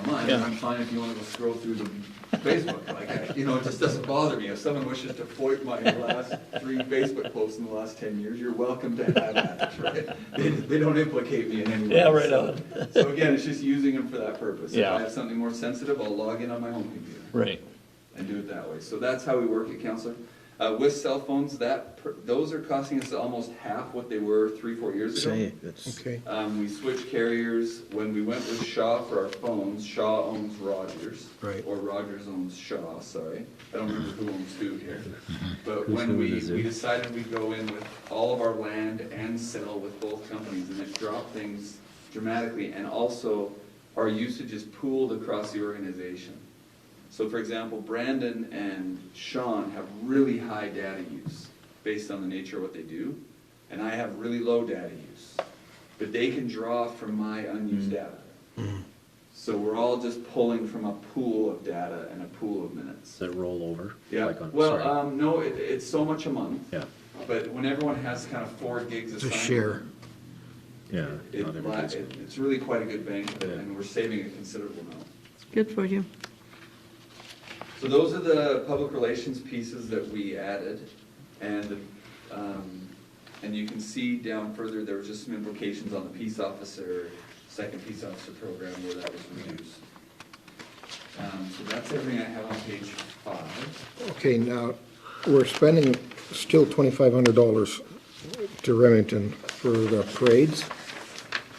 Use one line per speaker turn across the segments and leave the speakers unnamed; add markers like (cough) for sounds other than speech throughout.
fine, and I'm fine if you wanna go scroll through the Facebook, like, I- you know, it just doesn't bother me. If someone wishes to foip my last three Facebook posts in the last ten years, you're welcome to have that, (laughs) right? They, they don't implicate me in any way.
Yeah, right
so-
on.
So again, it's just using them for that purpose. If
Yeah.
I have something more sensitive, I'll log in on my home computer
Right.
and do it that way. So that's how we work it, counselor. Uh, with cell phones, that, per- those are costing us almost half what they were three, four years ago.
Okay.
Um, we switched carriers. When we went with Shaw for our phones, Shaw owns Rogers.
Right.
Or Rogers owns Shaw, sorry. I don't remember who owns who here. But when we, we decided we'd go in with all of our land and sell with both companies, and it dropped things dramatically. And also, our usage is pooled across the organization. So for example, Brandon and Sean have really high data use based on the nature of what they do, and I have really low data use. But they can draw from my unused data. So we're all just pulling from a pool of data and a pool of minutes.
Does it roll over?
Yeah,
Like on-
well,
sorry.
um, no, it, it's so much a month,
Yeah,
but when everyone has kind of four gigs
To
assigned.
share.
yeah.
It,
not
la-
everybody's-
it- it's really quite a good benefit,
Yeah.
and we're saving a considerable amount.
Good for you.
So those are the public relations pieces that we added, and, um, and you can see down further, there were just some implications on the peace officer, second peace officer program where that was reduced. Um, so that's everything I have on page five.
Okay, now, we're spending still twenty-five hundred dollars to Remington for the parades.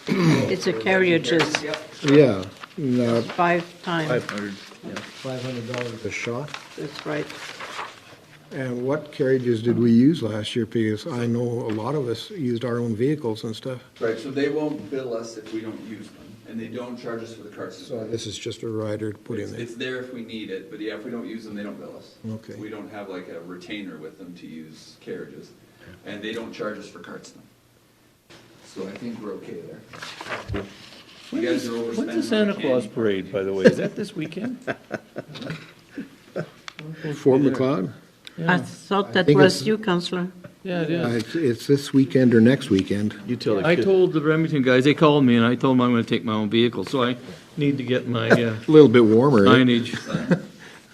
It's a carriages
Yep,
Yeah, now,
five times,
hundred, yeah.
five hundred dollars a shot.
that's right.
And what carriages did we use last year? Because I know a lot of us used our own vehicles and stuff.
right, so they won't bill us if we don't use them, and they don't charge us for the card
So
system.
this is just a rider to put in
It's,
there.
it's there if we need it, but yeah, if we don't use them, they don't bill us.
Okay.
We don't have like a retainer with them to use carriages, and they don't charge us for carts now. So I think we're okay there. You guys are overspending.
When's the
on
Santa
candy.
Claus parade, by the way? Is that this weekend?
Fort McLeod?
I
Yeah,
thought
I
that
think
was
it's-
you,
(laughs)
Counselor.
Yeah, it
Uh,
is.
It's it's this weekend or next weekend.
You tell the
I
kid,
told the Remington guys, they called me and I told them I'm gonna take my own vehicle, so I need to get my uh,
A little bit warmer.
(laughs)
eh?
signage.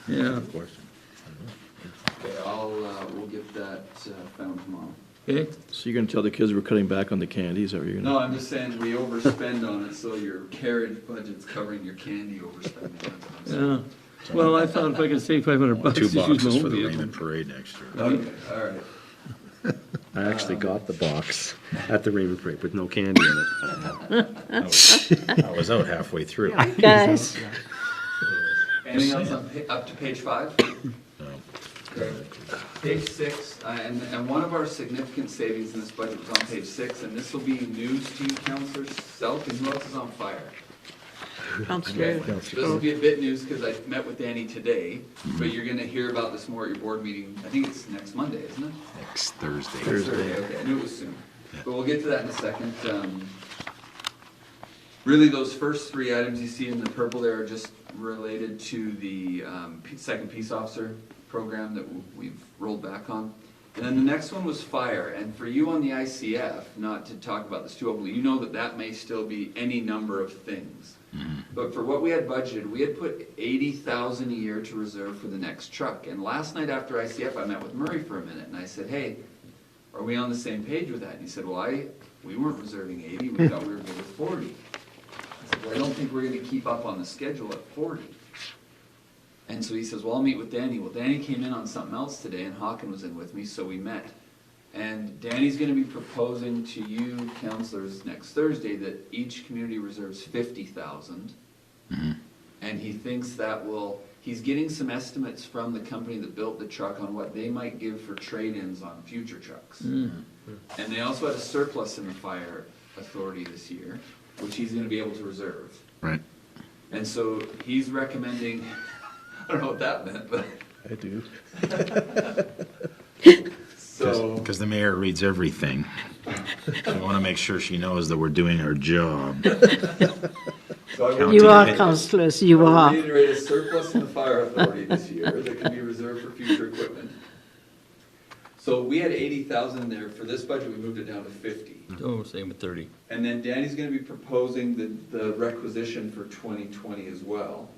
Yeah,
of course.
Okay, I'll, uh, we'll get that uh, found tomorrow.
okay,
So you're gonna tell the kids we're cutting back on the candy, is that what you're gonna?
No, I'm just saying we overspend on it, so your carriage budget's covering your candy overspending. That's what I'm saying.
yeah. Well, I thought if I could save five hundred bucks,
Two
just use my
boxes for the
own vehicle.
Raymond Parade next year.
Okay, all right.
I actually got the
(laughs)
box at the Raymond Parade with no candy in it.
I was out halfway through.
Guys,
Anything else on, pa- up to page five? Okay. Page six, uh, and, and one of our significant savings in this budget was on page six, and this will be news to you, Counselor Selk, and who else is on fire?
Counselor,
This will be a bit news, because I met with Danny today, but you're gonna hear about this more at your board meeting, I think it's next Monday, isn't it?
Next Thursday.
Thursday, okay, I knew it was soon. But we'll get to that in a second. Um, Really, those first three items you see in the purple there are just related to the um, pe- second peace officer program that w- we've rolled back on. And then the next one was fire, and for you on the ICF, not to talk about this too openly, you know that that may still be any number of things. But for what we had budgeted, we had put eighty thousand a year to reserve for the next truck. And last night after ICF, I met with Murray for a minute, and I said, hey, are we on the same page with that? And he said, well, I, we weren't reserving eighty, we thought we were good with forty. I said, well, I don't think we're gonna keep up on the schedule at forty. And so he says, well, I'll meet with Danny. Well, Danny came in on something else today and Hawken was in with me, so we met. And Danny's gonna be proposing to you counselors next Thursday that each community reserves fifty thousand. And he thinks that will, he's getting some estimates from the company that built the truck on what they might give for trade-ins on future trucks.
Hmm.
And they also had a surplus in the fire authority this year, which he's gonna be able to reserve.
Right.
And so he's recommending, (laughs) I don't know what that meant, but,
I do.
(laughs) so,
Because the mayor reads everything. I want to make sure she knows that we're doing our job.
so I will
County.
you are counselors, you
I will
are.
reiterate a surplus in the fire authority this year that can be reserved for future equipment. So we had eighty thousand there, for this budget, we moved it down to fifty.
Oh, same with thirty.
And then Danny's gonna be proposing the, the requisition for twenty twenty as well.